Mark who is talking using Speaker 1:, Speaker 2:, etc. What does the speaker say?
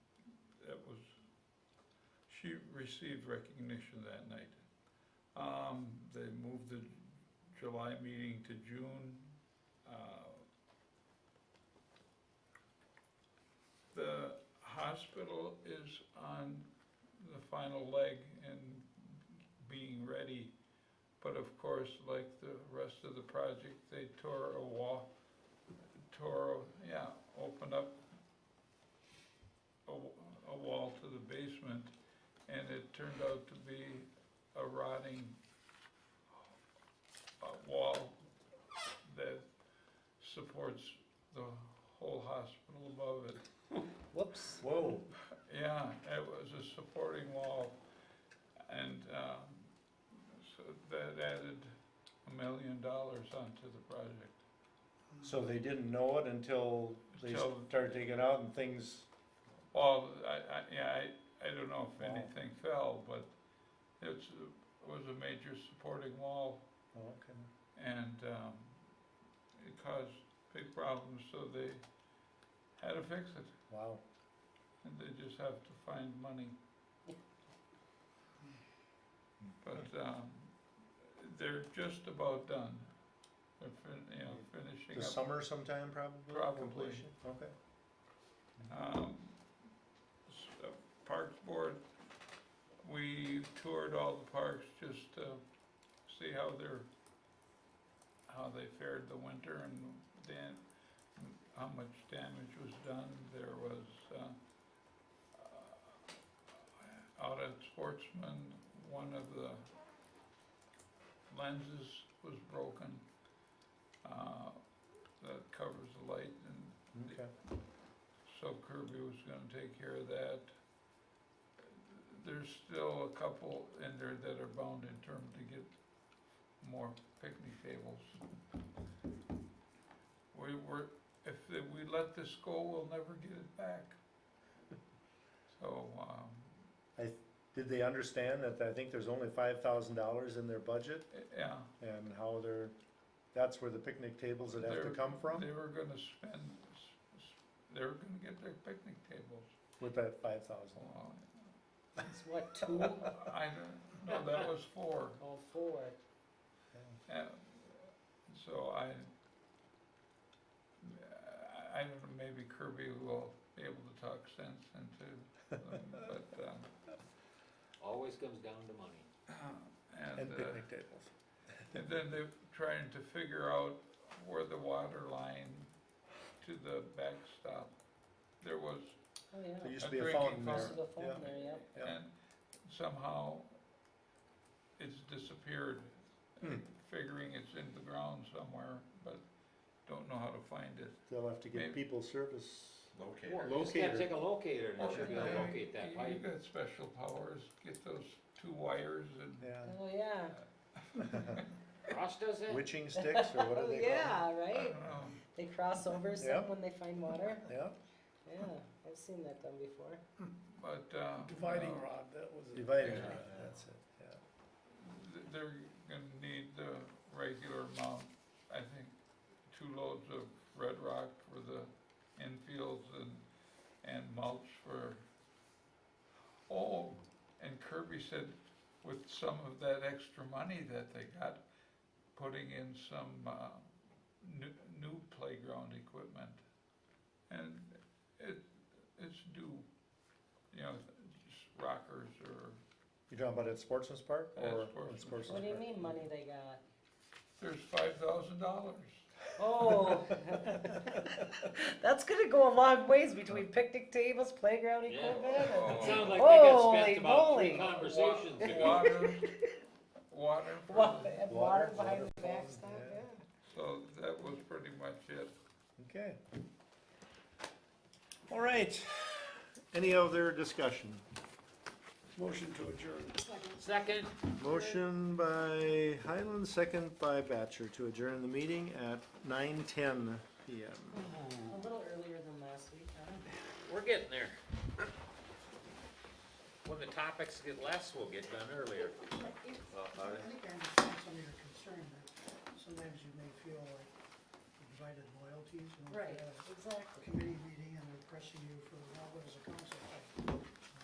Speaker 1: she received recognition that night. Um, they moved the July meeting to June. Uh, The hospital is on the final leg and being ready. But of course, like the rest of the project, they tore a wall, tore, yeah, opened up a, w- a wall to the basement, and it turned out to be a rotting uh, wall that supports the whole hospital above it.
Speaker 2: Whoops.
Speaker 3: Whoa.
Speaker 1: Yeah, it was a supporting wall, and, um, so that added a million dollars onto the project.
Speaker 3: So they didn't know it until they
Speaker 1: Till-
Speaker 3: started digging out and things,
Speaker 1: Well, I, I, yeah, I, I don't know if
Speaker 3: Wow.
Speaker 1: anything fell, but it's, it was a major supporting wall,
Speaker 3: oh, okay.
Speaker 1: and, um, it caused big problems, so they had to fix it,
Speaker 3: Wow.
Speaker 1: and they just have to find money. But, um, they're just about done. They're fin- you know, finishing
Speaker 3: The
Speaker 1: up.
Speaker 3: summer sometime probably?
Speaker 1: Probably.
Speaker 3: completion? Okay.
Speaker 1: Um, s- uh, Parks Board, we toured all the parks just to see how they're, how they fared the winter and then how much damage was done. There was, uh, uh, out at Sportsman, one of the lenses was broken, uh, that covers the light and
Speaker 3: Mm-hmm. Okay.
Speaker 1: so Kirby was gonna take care of that. There's still a couple in there that are bound in term to get more picnic tables. We were, if the- we let this go, we'll never get it back. So, um,
Speaker 3: Did they understand that I think there's only five thousand dollars in their budget
Speaker 1: yeah.
Speaker 3: and how they're, that's where the picnic tables would have to
Speaker 1: they're-
Speaker 3: come from
Speaker 1: They were gonna spend, s- s- they were gonna get their picnic tables.
Speaker 3: with that five thousand?
Speaker 1: Well,
Speaker 2: It's what, two? Oh,
Speaker 1: I don't, no, that was four.
Speaker 2: four.
Speaker 1: Uh, So I, I I don't know, maybe Kirby will be able to talk sense into them, but, um,
Speaker 4: Always comes down to money.
Speaker 1: and,
Speaker 3: And
Speaker 1: uh,
Speaker 3: picnic tables.
Speaker 1: and then they're trying to figure out where the water line to the backstop, there was,
Speaker 2: Oh,
Speaker 3: There
Speaker 2: yeah.
Speaker 3: used to
Speaker 1: a
Speaker 3: be a
Speaker 1: drinking
Speaker 3: fountain there.
Speaker 2: Across the phone
Speaker 3: Yeah.
Speaker 2: there, yeah.
Speaker 3: Yeah.
Speaker 1: and somehow it's disappeared.
Speaker 3: Hmm.
Speaker 1: Figuring it's in the ground somewhere, but don't know how to find it.
Speaker 3: They'll have to get
Speaker 1: Maybe.
Speaker 3: people service.
Speaker 4: Or
Speaker 3: Locator.
Speaker 4: you Just gotta
Speaker 3: Locator.
Speaker 4: take a locator and
Speaker 1: Well,
Speaker 4: it should be
Speaker 1: yeah,
Speaker 4: able to
Speaker 1: you-
Speaker 4: locate that
Speaker 1: You
Speaker 4: pipe.
Speaker 1: got special powers, get those two wires and,
Speaker 3: Yeah.
Speaker 2: Oh, yeah.
Speaker 4: Ross does that?
Speaker 3: Witching sticks or what are
Speaker 2: Oh,
Speaker 3: they called?
Speaker 2: yeah,
Speaker 1: I
Speaker 2: right?
Speaker 1: don't know,
Speaker 2: They cross over
Speaker 3: Yeah.
Speaker 2: some when they find water.
Speaker 3: Yeah,
Speaker 2: Yeah, I've seen that done before.
Speaker 1: but, uh.
Speaker 5: Dividing
Speaker 1: no,
Speaker 5: rod, that was it.
Speaker 3: dividing,
Speaker 1: Yeah.
Speaker 3: rod, that's it, yeah.
Speaker 1: th- They're gonna need the regular amount, I think, two loads of red rock for the infields and, and mulch for, oh, and Kirby said with some of that extra money that they got, putting in some, uh, new, new playground equipment. And it, it's due, you know, just rockers or
Speaker 3: You're talking about at Sportsman's Park
Speaker 1: At
Speaker 3: or?
Speaker 1: Sportsman's
Speaker 3: at
Speaker 2: What do you
Speaker 3: Park?
Speaker 2: mean money they got?
Speaker 1: There's five thousand dollars.
Speaker 2: Oh. That's gonna go a long ways between picnic tables, playground
Speaker 4: Yeah.
Speaker 2: equipment.
Speaker 4: It
Speaker 1: Water,
Speaker 4: sounds like they got
Speaker 2: Holy
Speaker 4: spent about
Speaker 2: moly.
Speaker 4: three conversations ago.
Speaker 1: water- Water, for
Speaker 2: Wa-
Speaker 1: the-
Speaker 2: and
Speaker 3: Water,
Speaker 2: Water behind
Speaker 3: water
Speaker 2: the
Speaker 3: fountain,
Speaker 2: backstop,
Speaker 3: yeah.
Speaker 2: yeah.
Speaker 1: so that was pretty much it.
Speaker 3: Okay. All right. Any other discussion?
Speaker 5: Motion to adjourn.
Speaker 4: Second,
Speaker 3: Motion by Highland, second by Batcher to adjourn the meeting at nine ten PM.
Speaker 2: A little earlier than last week, huh?
Speaker 4: we're getting there. When the topics get less, we'll get done earlier.
Speaker 5: I think I understand some of your concern, that sometimes you may feel like divided loyalties. and if you
Speaker 2: Right,
Speaker 5: have a
Speaker 2: exactly.
Speaker 5: Committee meeting and they're pressing you for what as a council. I